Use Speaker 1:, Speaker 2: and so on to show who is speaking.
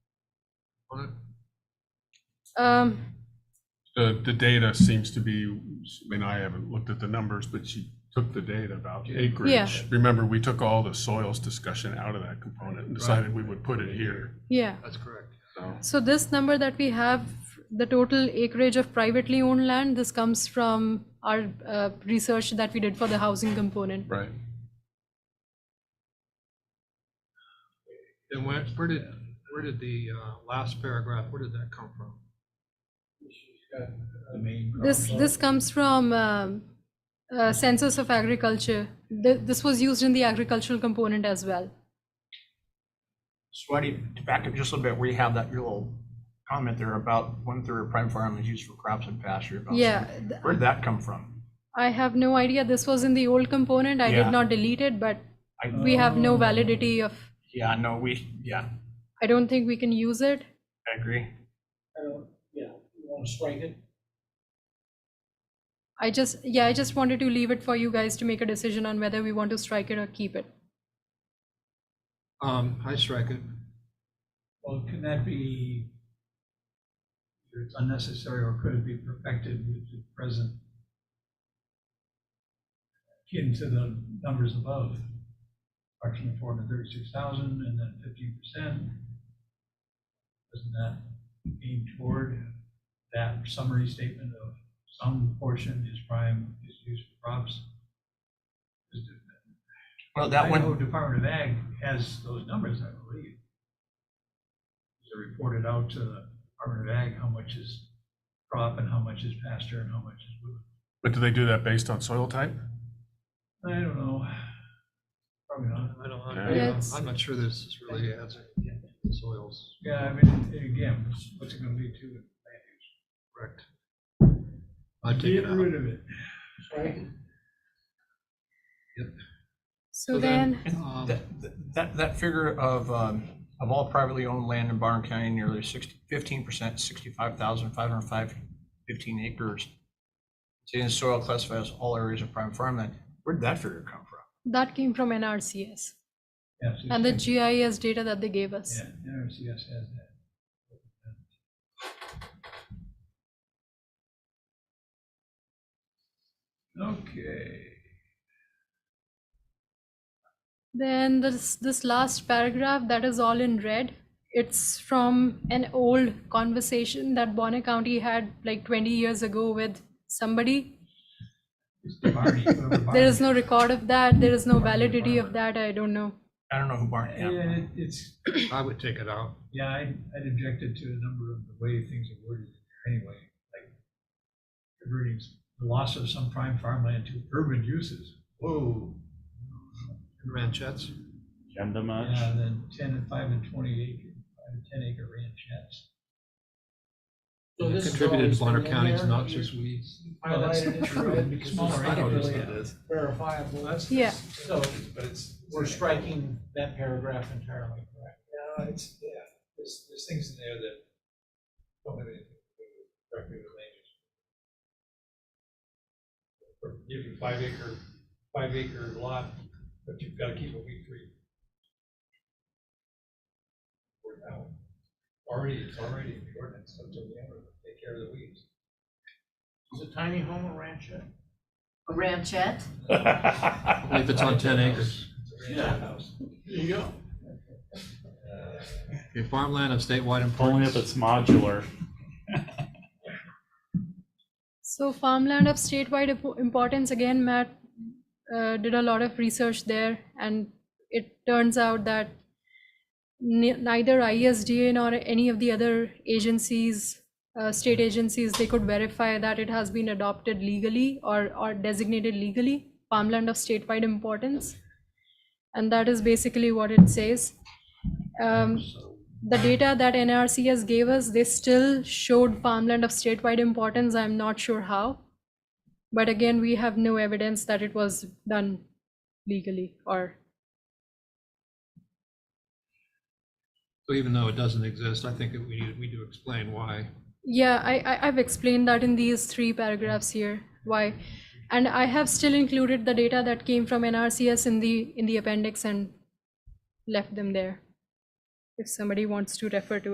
Speaker 1: on it?
Speaker 2: Um,
Speaker 1: The, the data seems to be, I mean, I haven't looked at the numbers, but she took the data about acreage. Remember, we took all the soils discussion out of that component and decided we would put it here.
Speaker 2: yeah,
Speaker 3: That's correct.
Speaker 1: So
Speaker 2: so this number that we have, the total acreage of privately owned land, this comes from our uh, research that we did for the housing component.
Speaker 1: Right.
Speaker 3: And where, where did, where did the uh, last paragraph, where did that come from?
Speaker 2: This, this comes from um, uh, Census of Agriculture. Th- This was used in the agricultural component as well.
Speaker 4: So I need to back up just a little bit, where you have that your little comment there about one third of prime farmland is used for crops and pasture. about
Speaker 2: Yeah,
Speaker 4: seven-
Speaker 2: th-
Speaker 4: Where'd that come from?
Speaker 2: I have no idea. This was in the old component. I
Speaker 4: Yeah.
Speaker 2: did not delete it, but
Speaker 4: I,
Speaker 2: we have
Speaker 3: Oh.
Speaker 2: no validity of,
Speaker 4: yeah, no, we, yeah,
Speaker 2: I don't think we can use it.
Speaker 4: I agree.
Speaker 5: I don't, yeah, you want to strike it?
Speaker 2: I just, yeah, I just wanted to leave it for you guys to make a decision on whether we want to strike it or keep it.
Speaker 3: Um, I strike it.
Speaker 5: Well, can that be, either it's unnecessary or could it be perfected with the present? Akin to the numbers above, reduction of four hundred thirty-six thousand and then fifteen percent. Doesn't that aim toward that summary statement of some portion is prime, is used for crops? Is it-
Speaker 4: Well, that
Speaker 5: Idaho
Speaker 4: one,
Speaker 5: Department of Ag has those numbers, I believe. Is it reported out to the Department of Ag how much is crop and how much is pasture and how much is wood?
Speaker 1: But do they do that based on soil type?
Speaker 5: I don't know. Probably not.
Speaker 3: I don't,
Speaker 1: Yeah.
Speaker 3: I'm-
Speaker 2: Yes.
Speaker 3: I'm not sure this is really adds soils,
Speaker 5: Yeah, I mean, again, what's- what's it gonna be to it?
Speaker 3: correct? I take
Speaker 5: Get
Speaker 3: it out.
Speaker 5: rid of it.
Speaker 2: So
Speaker 3: So
Speaker 2: then,
Speaker 3: then-
Speaker 4: and that, that, that figure of, um, of all privately owned land in Barn County, nearly sixty, fifteen percent, sixty-five thousand, five hundred five, fifteen acres. Sitting in soil classifies all areas of prime farmland. Where'd that figure come from?
Speaker 2: that came from NRCS
Speaker 5: Yeah, so you
Speaker 2: and the
Speaker 5: can-
Speaker 2: GIS data that they gave us.
Speaker 5: Yeah, NRCS has that. Okay.
Speaker 2: Then this this last paragraph that is all in red. It's from an old conversation that Bonner County had like 20 years ago with somebody.
Speaker 5: It's the Barney, whoever
Speaker 2: There
Speaker 5: Barney
Speaker 2: is no record of that. There is no validity of that. I don't know.
Speaker 4: I don't know who Barn,
Speaker 5: Yeah,
Speaker 4: yeah.
Speaker 5: it- it's,
Speaker 3: I would take it out.
Speaker 5: yeah, I, I'd objected to a number of the way things are worded anyway, like converting s- the loss of some prime farmland to urban uses. Whoa.
Speaker 3: Ranchettes,
Speaker 6: Agenda much?
Speaker 5: Yeah, then ten and five and twenty acre, five and ten acre ranchettes.
Speaker 7: So this has
Speaker 3: contributed
Speaker 7: always
Speaker 3: to Bonner
Speaker 7: been in
Speaker 3: County's
Speaker 7: there?
Speaker 3: noxious weeds.
Speaker 5: Well, that's
Speaker 7: Highlighted it
Speaker 5: not
Speaker 7: in
Speaker 5: true.
Speaker 7: red because
Speaker 5: Smaller
Speaker 7: it's
Speaker 3: I know
Speaker 5: acres,
Speaker 3: this,
Speaker 5: yeah.
Speaker 3: but it's-
Speaker 7: verifiable.
Speaker 2: Yeah.
Speaker 7: So
Speaker 5: But it's.
Speaker 7: we're striking that paragraph entirely, correct?
Speaker 5: Yeah, it's, yeah, there's, there's things in there that don't have anything to do with directly related. Or Give you five acre, five acre lot, but you've got to keep a weed free. Or now, already, it's already in the ordinance, so to take care of the weeds.
Speaker 7: Is a tiny home a ranchette?
Speaker 8: A ranchette?
Speaker 3: Only if it's on ten acres.
Speaker 5: It's a ranch house.
Speaker 7: There you go.
Speaker 3: Okay, farmland of statewide
Speaker 6: Only if
Speaker 3: importance.
Speaker 6: it's modular.
Speaker 2: So farmland of statewide impo- importance, again, Matt uh, did a lot of research there, and it turns out that ne- neither ISDA nor any of the other agencies, uh, state agencies, they could verify that it has been adopted legally or, or designated legally, farmland of statewide importance. And that is basically what it says. Um, the data that NRCS gave us, they still showed farmland of statewide importance. I'm not sure how. But again, we have no evidence that it was done legally or,
Speaker 3: So even though it doesn't exist, I think that we need, we need to explain why.
Speaker 2: yeah, I, I, I've explained that in these three paragraphs here, why. And I have still included the data that came from NRCS in the, in the appendix and left them there. If somebody wants to refer to